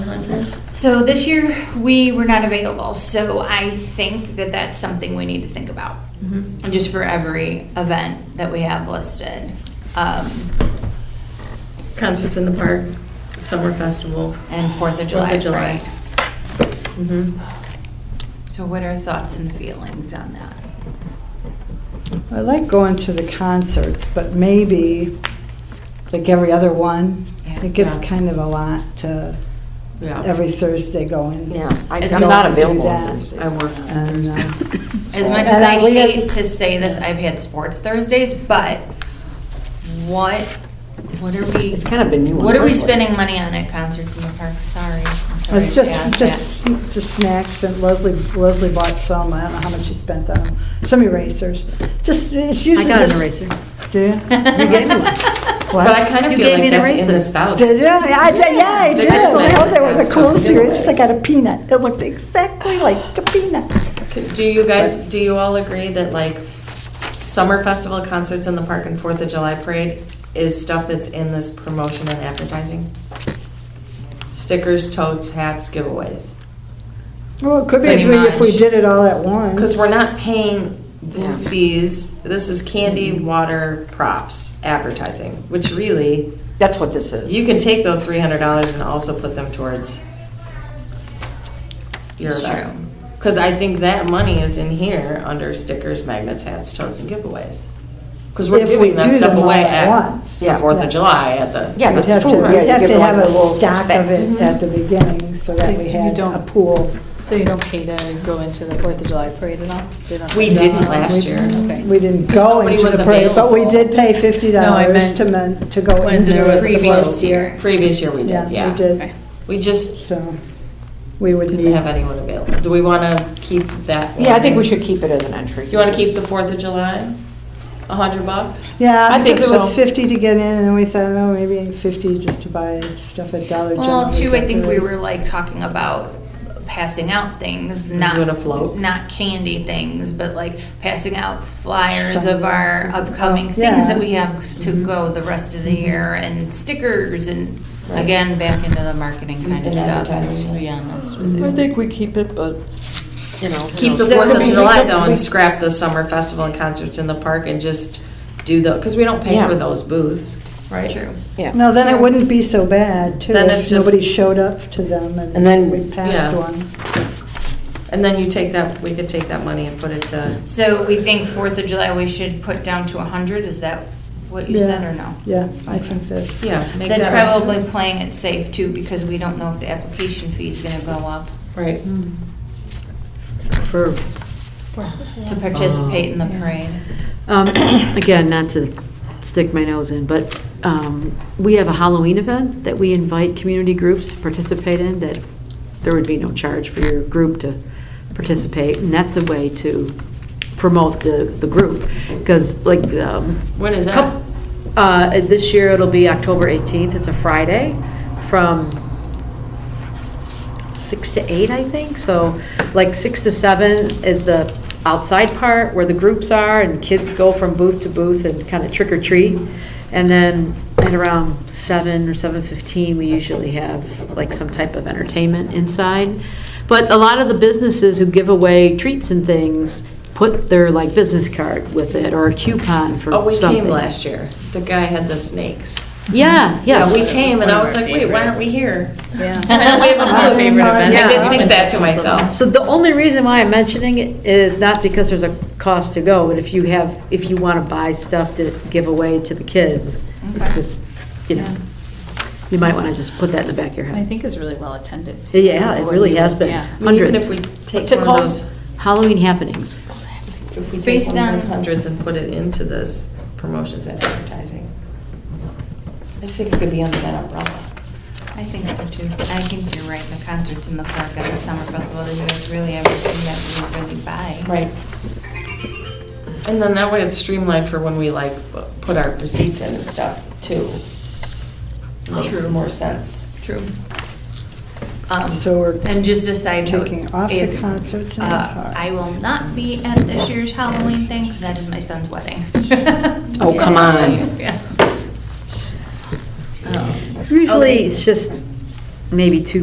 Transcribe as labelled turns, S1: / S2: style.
S1: 100?
S2: So this year, we were not available, so I think that that's something we need to think about.
S1: Mhm.
S2: Just for every event that we have listed. Um,
S1: Concerts in the park, summer festival.
S2: And Fourth of July
S1: Fourth of July.
S2: parade.
S1: Mhm.
S2: So what are thoughts and feelings on that?
S3: I like going to the concerts, but maybe, like every other one,
S2: Yeah.
S3: it gets
S4: Yeah.
S3: kind of a lot to
S4: Yeah,
S3: every Thursday going.
S4: yeah, I-
S2: As
S4: I'm
S2: we
S4: not
S3: don't do
S4: available
S3: that,
S4: on Thursdays.
S3: I
S4: work
S3: And, uh,
S2: As much as
S3: And
S2: I
S3: we had-
S2: hate to say this, I've had sports Thursdays, but what, what are we?
S4: It's kind of been new on
S2: What are we
S4: this one.
S2: spending money on at concerts in the park? Sorry. I'm sorry
S3: It's
S2: to ask
S3: just, just, just snacks, and Leslie, Leslie bought some, I don't know how much she spent on them, some erasers, just, it's usually
S4: got an
S3: just-
S4: eraser.
S3: Do you?
S2: that.
S4: You gave me one.
S3: What?
S1: But I kind of
S4: You
S1: feel
S4: gave me
S1: like
S4: the
S1: that's in
S4: razor.
S1: this thousand.
S3: Did you? Yeah, I did, yeah, I did.
S1: Yes.
S3: Oh, they were
S1: That's
S3: the coolest
S1: giveaways.
S3: erasers, I got a peanut, it looked exactly like a peanut.
S1: C- Do you guys, do you all agree that like summer festival concerts in the park and Fourth of July parade is stuff that's in this promotion and advertising? Stickers, totes, hats, giveaways.
S3: Well, Oh, it could be
S1: Pretty
S3: if we, if we
S1: much.
S3: did it all at once.
S1: Because we're not paying booth
S4: Yeah.
S1: fees. This is candy, water, props, advertising, which really,
S4: That's what this is.
S1: you can take those three hundred dollars and also put them towards your
S2: It's
S1: event. Because I think that money is in here under stickers, magnets, hats, totes, and giveaways. Because we're
S3: If we
S1: giving that
S3: do
S1: stuff
S3: them all
S1: away
S3: at
S1: at
S3: once.
S1: the
S4: Yeah.
S1: Fourth
S3: Yeah.
S1: of July at the.
S4: Yeah,
S3: We'd
S4: but
S3: have to,
S4: food, right,
S3: we'd
S4: you
S3: have
S4: give
S3: to
S4: it
S3: have
S4: like
S3: a
S4: the little
S3: stock of
S4: thing.
S3: it at the beginning, so
S5: So
S3: that we
S5: you
S3: had
S5: don't-
S3: a pool.
S5: So you don't pay to go into the Fourth of July parade at all? They don't-
S1: We
S5: No,
S1: didn't last
S5: we-
S1: year.
S5: okay.
S3: We didn't
S1: Because
S3: go
S1: nobody
S3: into
S1: was
S3: the parade, but we
S1: available.
S3: did pay fifty
S5: No, I
S3: dollars
S5: meant
S3: to men, to go
S5: when
S3: into
S5: there
S3: the
S5: was a
S3: float.
S5: Previous vote.
S2: year.
S1: Previous year we did,
S3: Yeah, we
S1: yeah.
S3: did,
S5: Okay.
S1: We just
S3: so, we would
S1: didn't
S3: need,
S1: have anyone available. Do we want to keep that?
S4: Yeah, I think
S1: one?
S4: we should keep it as an entry.
S1: You want to keep the Fourth of July? A hundred bucks?
S3: yeah,
S4: I think
S3: because it was
S4: so.
S3: fifty to get in, and we thought, oh, maybe fifty just to buy stuff at Dollar General.
S2: Well, too, I think we
S3: decorate.
S2: were like talking about passing out things, not.
S1: Doing a float.
S2: Not candy things, but like passing out flyers of our
S3: Signs.
S2: upcoming
S3: Oh,
S2: things that
S3: yeah.
S2: we have to
S1: Mm-hmm.
S2: go the rest of the year and stickers and again, back into the marketing kind of
S1: And
S2: stuff,
S1: advertising. Mm-hmm.
S2: to be honest with
S5: I
S2: you.
S5: think we keep it, but
S4: You know.
S1: Keep the
S2: So
S1: Fourth of
S2: we-
S1: July though and scrap the summer festival and concerts in the park and just do the, because we don't pay
S4: Yeah.
S1: for those booths, right?
S2: True.
S4: Yeah,
S3: No, then it wouldn't be so bad, too,
S1: Then it's
S3: if
S1: just-
S3: nobody showed up to them
S4: And then-
S3: and we passed
S1: yeah.
S3: one.
S1: And then you take that, we could take that money and put it to,
S2: So we think Fourth of July we should put down to hundred, is that what you
S3: Yeah.
S2: said or no?
S3: Yeah, I think so.
S1: yeah. make
S2: That's
S1: that-
S2: probably playing it safe too, because we don't know if the application fee is gonna go up
S1: Right.
S4: for,
S2: to participate in the
S3: Oh.
S2: parade.
S6: Um, Again, not to stick my nose in, but um, we have a Halloween event that we invite community groups to participate in, that there would be no charge for your group to participate, and that's a way to promote the, the group, because like.
S1: When
S6: When
S1: is that?
S6: Uh, this year it'll be October 18th, it's a Friday, from six to eight, I think. So like six to seven is the outside part where the groups are and kids go from booth to booth and kind of trick or treat. And then at around seven or seven fifteen, we usually have like some type of entertainment inside. But a lot of the businesses who give away treats and things put their like business card with it or a coupon for
S1: Oh, we
S6: something.
S1: came last year. The guy had the snakes.
S6: Yeah,
S1: Yeah,
S6: yes.
S1: we came and I was like, wait, why aren't we here?
S5: yeah.
S1: We have a booth.
S3: favorite event.
S1: I didn't think that to myself.
S6: So the only reason why I'm mentioning it is not because there's a cost to go, but if you have, if you want to buy stuff to give away to the kids,
S2: Okay.
S6: just, you know, you might want to just put that in the back of your
S5: And I
S6: head.
S5: think it's really well attended. too.
S6: Yeah, it really has been,
S5: Yeah.
S1: I mean, Even if
S6: hundreds.
S1: we take
S6: What's
S1: one
S6: it
S1: of
S6: called?
S1: those.
S6: Halloween happenings.
S1: If we take
S2: Based
S1: one of those
S2: on-
S1: hundreds and put it into this promotions and advertising. I just think it could be under that umbrella.
S2: I think so too. I think you're right, the concerts in the park and the summer festival, there's really everything that we really buy.
S1: Right. And then that way it's streamlined for when we like put our receipts in and stuff too. Makes
S2: True.
S1: more sense.
S2: True. Um,
S3: So we're
S2: and just a side note.
S3: taking off the
S2: if,
S3: concerts in the
S2: uh,
S3: park.
S2: I will not be at this year's Halloween thing, because that is my son's wedding.
S4: Oh, come on.
S2: Yeah. Um,
S6: Usually, it's just maybe two